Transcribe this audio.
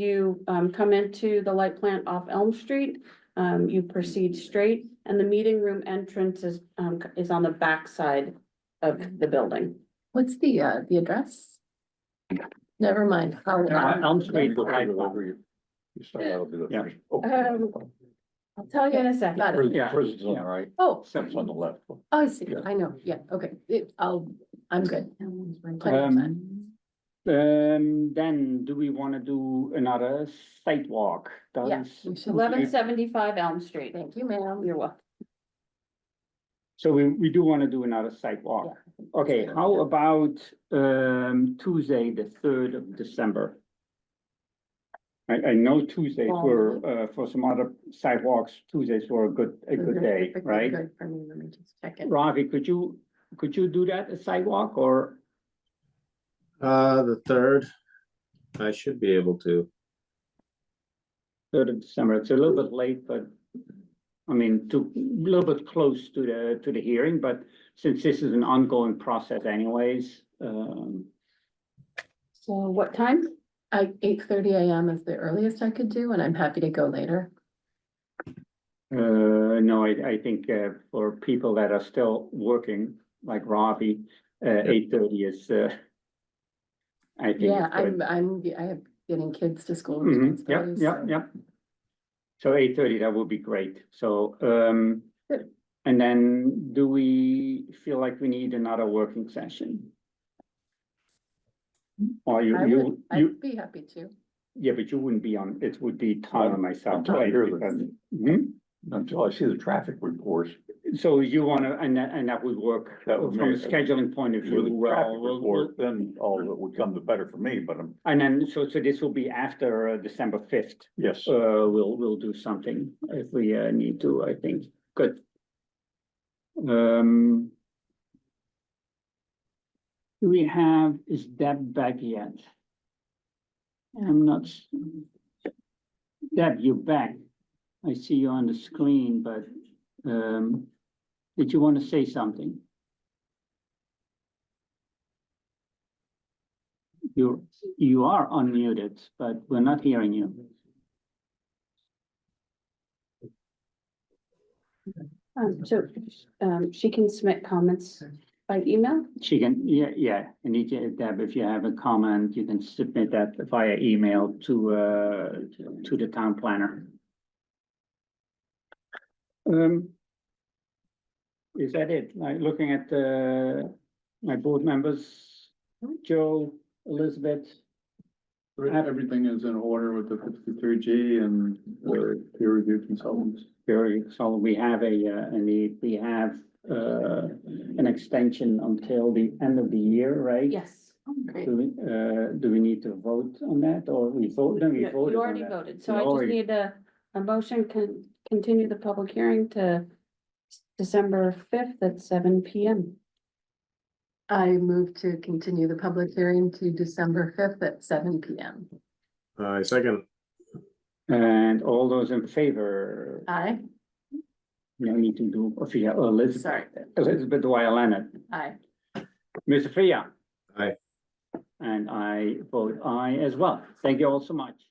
you um, come into the light plant off Elm Street, um, you proceed straight, and the meeting room entrance is, um, is on the backside of the building. What's the, uh, the address? Never mind. I'll- Elm- Elm Street. Look right over you. You start out with the Yeah. first. oh, Um, I'll tell you in a Got second. prison- Yeah. Prison's on the right, Oh, steps on the left. oh, I see. Yeah. I know. Yeah, okay. It, I'll, I'm good. Um, um, then do we wanna do another sidewalk? Yeah, Does- we should. Eleven seventy-five Elm Street. Thank you, ma'am. You're welcome. So we, we do wanna do another sidewalk. Okay, how about, um, Tuesday, the third of December? I, I know Tuesdays were, uh, for some other sidewalks, Tuesdays were a good, a good day, Perfectly right? good For me, let me just check it. Ravi, could you, could you do that, a sidewalk, or, Uh, the third, I should be able to. third of December, it's a little bit late, but. I mean, to, a little bit close to the, to the hearing, but since this is an ongoing process anyways, um. So what time? I, eight thirty AM is the earliest I could do, and I'm happy to go later. Uh, no, I, I think, uh, for people that are still working, like Ravi, uh, eight thirty is, uh. I think. Yeah, it's good. I'm, I'm, I have getting kids to school. Mhm, Yep, responsibilities, yep, so- yep. So eight thirty, that would be great, so, um, Good. and then do we feel like we need another working session? Or you, I you, would, you, I'd be happy to. yeah, but you wouldn't be on, it would be Tyler and myself. I'm not right, here, but- because- Mhm. Until I see the traffic reports, hmm? So you wanna, and that, and that would work That from would a make- scheduling point of if you view, do the well, traffic we'll- we'll- report, then all that would come the better for me, but um, I'm, and then, so, so this will be after uh, December fifth. yes. Uh, we'll, we'll do something if we uh, need to, I think, good. Um. Do we have, is Deb back yet? I'm not. s- Deb, you're back. I see you on the screen, but, um, did you want to say something? You're, you are unmuted, but we're not hearing you. Um, so, um, she can submit comments by email. She can, yeah, yeah, and you can, Deb, if you have a comment, you can submit that via email to, uh, to the town planner. Um. Is that it? Like, looking at, uh, my board members, Joe, Elizabeth, Ab- Everything is in order with the fifty-three G and the peer review consultants. Very, so we have a, uh, and the- we have, uh, an extension until the end of the year, right? Yes. Oh, Great. Do we, uh, do we need to vote on that or we vote, then we You voted? you on already that. voted, so We I just already- need a, a motion can continue the public hearing to December fifth at seven P M. I move to continue the public hearing to December fifth at seven P M. I Uh, second, And all those in favor, Aye, no need to do, Sophia, Elizabeth, sorry, Elizabeth Dwyer Leonard, aye. Ms. Sophia. Aye. And I vote aye as well. Thank you all so much.